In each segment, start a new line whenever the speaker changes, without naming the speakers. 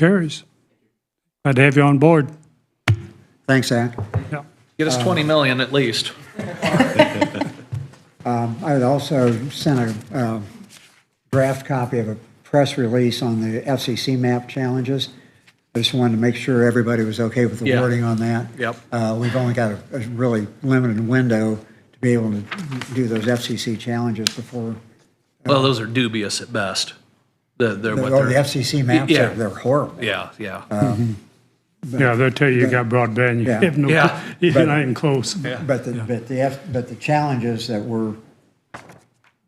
Carries. Glad to have you on board.
Thanks, Zach.
Yeah.
Get us 20 million at least.
I had also sent a uh, draft copy of a press release on the FCC map challenges. I just wanted to make sure everybody was okay with the
Yeah.
wording on that.
Yep.
Uh, We've only got a a really limited window to be able to do those FCC challenges before,
Well, those are dubious at best. The, they're
the
what
oh, the
they're,
FCC maps, are-
Yeah.
they're horrible.
yeah, yeah.
Yeah, they'll tell you you got broadband, you
Yeah.
have no,
Yeah.
you're not even close.
But the, but the, F- but the challenges that were,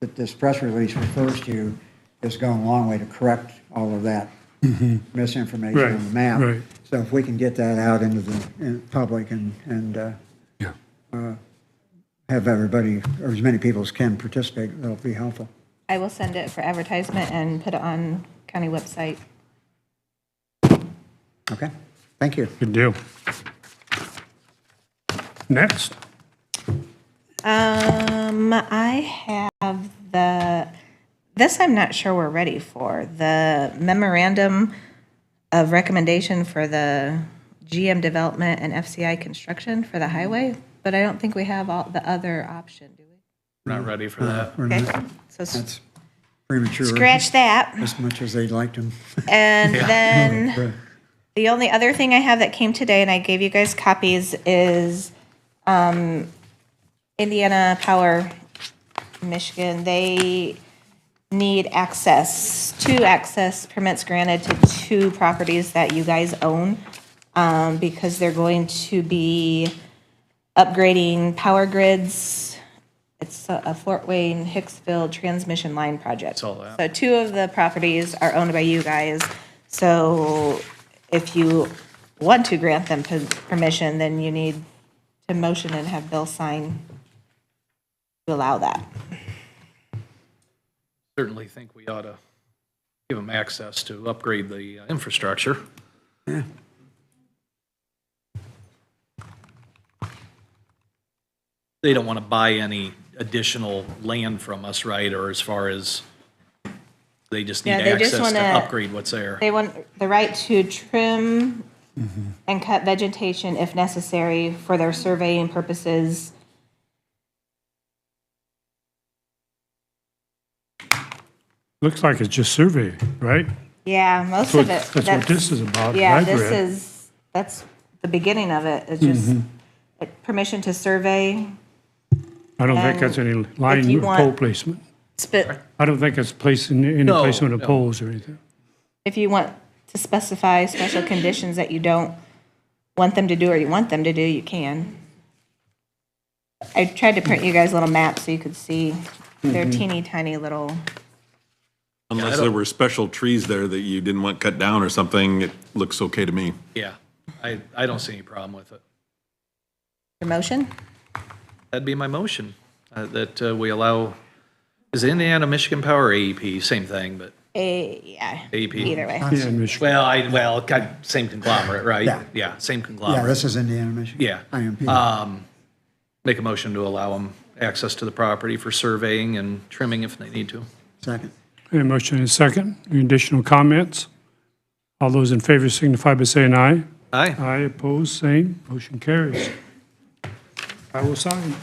that this press release refers to is going a long way to correct all of that misinformation
Mm-hmm. Right,
on the map.
right.
So if we can get that out into the in public and, and uh, uh, have everybody, or as many people as can participate, that'll be helpful.
I will send it for advertisement and put it on county website.
Okay? Thank you.
Good deal. Next,
Um, I have the, this I'm not sure we're ready for, the memorandum of recommendation for the GM development and FCI construction for the highway, but I don't think we have all the other option, do we?
We're not ready for that.
Okay, so s-
That's premature.
scratch that.
As much as they'd like to.
And then the only other thing I have that came today, and I gave you guys copies, is um, Indiana Power, Michigan. They need access, two access permits granted to two properties that you guys own um, because they're going to be upgrading power grids. It's a a Fort Wayne Hicksville transmission line project.
all that.
So two of the properties are owned by you guys. So if you want to grant them per- permission, then you need to motion and have Bill sign to allow that.
Certainly think we ought to give them access to upgrade the uh, infrastructure. They don't want to buy any additional land from us, right? Or as far as, they just need
Yeah, they
access
just
to
wanna-
upgrade what's there.
They want the right to trim and cut vegetation if necessary for their surveying purposes.
looks like it's just survey, right?
Yeah, most
So
of it.
That's what this is about. that
Yeah,
I've
this
read.
is, that's the beginning of it. It's just
Mm-hmm.
like, permission to survey,
I don't think
and
that's any
Uh, you
line
want-
pole placement.
sp-
I don't think it's placing, any
No,
placement of
no.
poles or anything.
if you want to specify special conditions that you don't want them to do or you want them to do, you can. I tried to print you guys a little map so you could see
Mm-hmm.
their teeny tiny little,
I
Unless
don't-
there were special trees there that you didn't want cut down or something, it looks okay to me.
Yeah, I, I don't see any problem with it.
your motion?
That'd be my motion, uh, that uh, we allow, is it Indiana, Michigan Power, or AEP, same thing, but,
A, Eh, yeah.
AP.
Either way.
Yeah, in Michigan.
well, I, well, God, same conglomerate, right?
Yeah.
Yeah, same
Yeah,
conglomerate.
this is Indiana, Michigan.
Yeah.
IMP.
Um, Make a motion to allow them access to the property for surveying and trimming if they need to.
Second.
Any motion and a second? Any additional comments? All those in favor signify by saying aye.
Aye,
Aye, opposed, same. Motion carries. I will sign.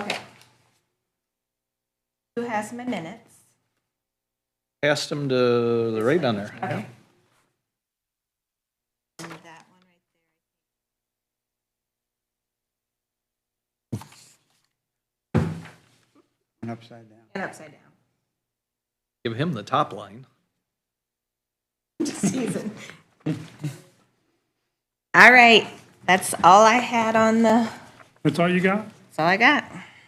Okay. Who has my minutes?
asked them to, they're right down there.
Okay.
And upside down.
And upside down.
Give him the top line.
Season. All right, that's all I had on the,
That's all you got?
that's all I got.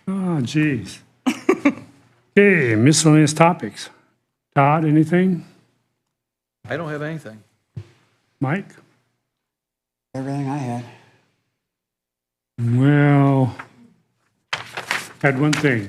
Ah, jeez. Okay, miscellaneous topics. Todd, anything?
I don't have anything.
Mike?
Everything I had.
Well, had one thing.